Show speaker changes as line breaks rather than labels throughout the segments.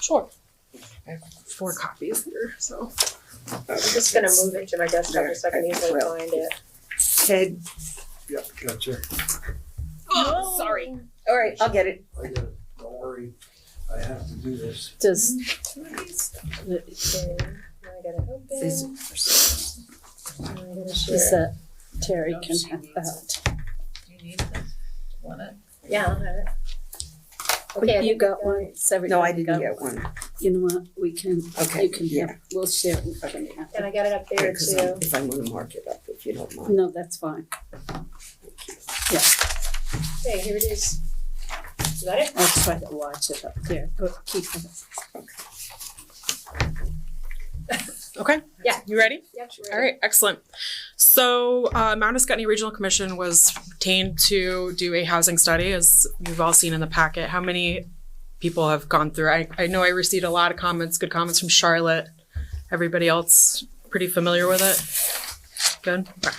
Sure. I have four copies here, so.
I'm just gonna move it to my desktop just so I can easily
Well.
find it.
Ted.
Yep, gotcha.
Oh,
sorry.
Alright, I'll get it.
I got it. Don't worry. I have to do this.
Does,
Okay, now I gotta open, now I gotta
is
share.
that Terry can have that.
you need this? Want it?
Yeah, I'll have it.
But
I
you
think
got
I
one, it's every.
No, I didn't get one.
You know what, we can,
Okay,
you can
yeah.
have, we'll share it in front of you.
And I got it up there
Because I-
too.
if I wanna mark it up, if you don't mind.
No, that's fine.
Okay, here it is. You got it?
I'll try to watch it up there, but keep it.
Okay.
Yeah.
You ready?
Yep. we're
All right, excellent. So, uh, Mount Escutney Regional Commission was retained to do a housing study, as you've all seen in the packet. How many people have gone through? I, I know I received a lot of comments, good comments from Charlotte. Everybody else pretty familiar with it? Good. Okay.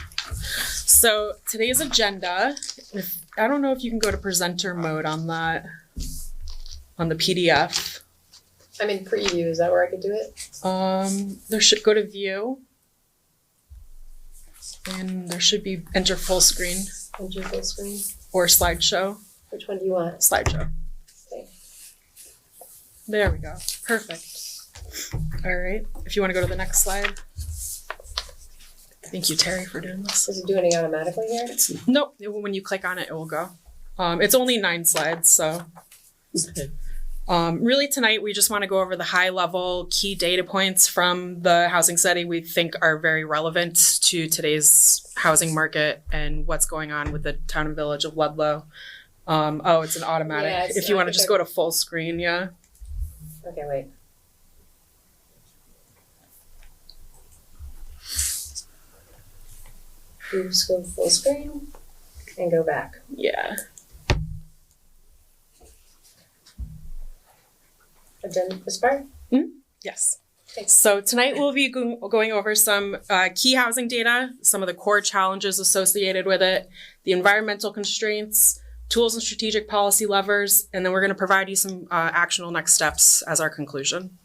So today's agenda, if, I don't know if you can go to presenter mode on that, on the PDF.
I'm in preview, is that where I could do it?
Um, there should go to view. And there should be enter full screen
On your full screen?
or slideshow.
Which one do you want?
Slideshow.
Okay.
There we go. Perfect. All right. If you want to go to the next slide. Thank you, Terry, for doing this.
Does it do anything automatically here?
Nope. it will- When you click on it, it will go. Um, it's only nine slides, so.
Okay.
Um, really, tonight we just want to go over the high level key data points from the housing study we think are very relevant to today's housing market and what's going on with the town and village of Ludlow. Um, oh, it's an automatic.
Yeah, it's-
if you
I
want to
think
just
I-
go to full screen, yeah.
Okay, wait. You just go full screen and go back.
Yeah.
Agenda this part?
Yes.
Thanks.
So tonight we'll be go- going over some uh, key housing data, some of the core challenges associated with it, the environmental constraints, tools and strategic policy levers, and then we're going to provide you some uh, actionable next steps as our conclusion.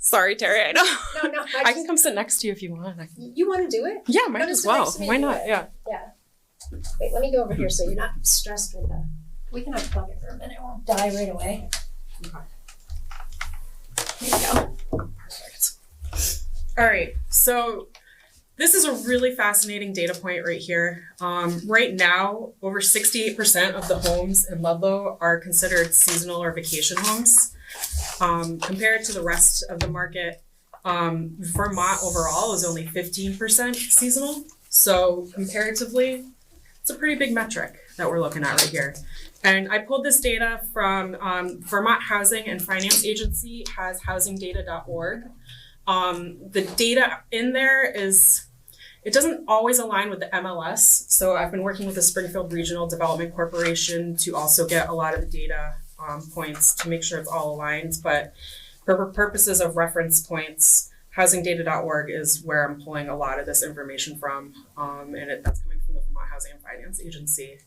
Sorry, Terry. I know.
No, no,
I
I
can
just,
come sit next to you if you want. I can-
you wanna do it?
Yeah, might
Come
as
sit next
well.
to me
Why
and do
not?
it.
Yeah.
Yeah. Wait, let me go over here so you're not stressed with the, we can unplug it for a minute, it won't die right away.
Perfect. All right, so this is a really fascinating data point right here. Um, right now, over 68% of the homes in Ludlow are considered seasonal or vacation homes. Um, compared to the rest of the market, um, Vermont overall is only 15% seasonal. So comparatively, it's a pretty big metric that we're looking at right here. And I pulled this data from um, Vermont Housing and Finance Agency has housingdata.org. Um, the data in there is, it doesn't always align with the MLS. So I've been working with the Springfield Regional Development Corporation to also get a lot of the data um, points to make sure it's all aligned. But for purposes of reference points, housingdata.org is where I'm pulling a lot of this information from. Um, and it, that's coming from the Vermont Housing and Finance Agency.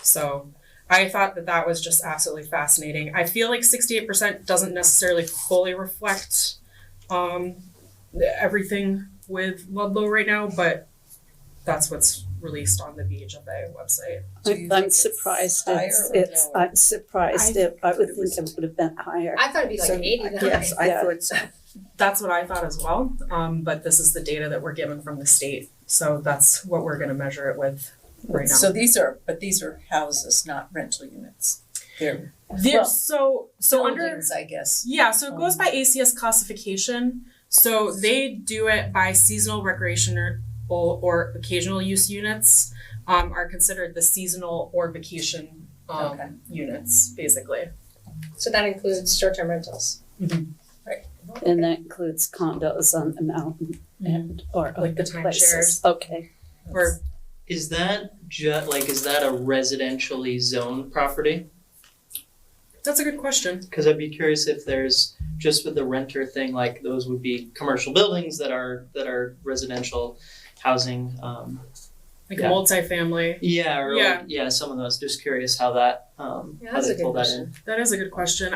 So I thought that that was just absolutely fascinating. I feel like 68% doesn't necessarily fully reflect um, everything with Ludlow right now, but that's what's released on the VHFA website.
Do you
I'm-
think
I'm
it's
surprised
higher
it's,
or
it's,
lower?
I'm surprised
I-
it, I would think it would have been higher.
I thought it'd be like
So,
eighty nine.
Yes, I
Yeah.
thought so.
That's what I thought as well. Um, but this is the data that we're given from the state. So that's what we're going to measure it with right now.
So these are, but these are houses, not rental units. They're
There- so, so under.
buildings, I guess.
Yeah, so it goes
Um,
by ACS classification. So they do it by seasonal recreational or, or occasional use units um, are considered the seasonal or vacation um,
Okay.
units, basically.
So that includes short-term rentals.
And that includes condos on the mountain and, or
Like the
other places. Okay,
Or
Is that ju- like is that a residentially zoned property?
that's a good question.
Because I'd be curious if there's just with the renter thing, like those would be commercial buildings that are that are residential housing. Um,
like
Yeah.
multifamily.
Yeah, or
Yeah.
yeah, some of those. Just curious how that um
Yeah,
how
that's
they
a good
pull that in.
question.
That is a good question.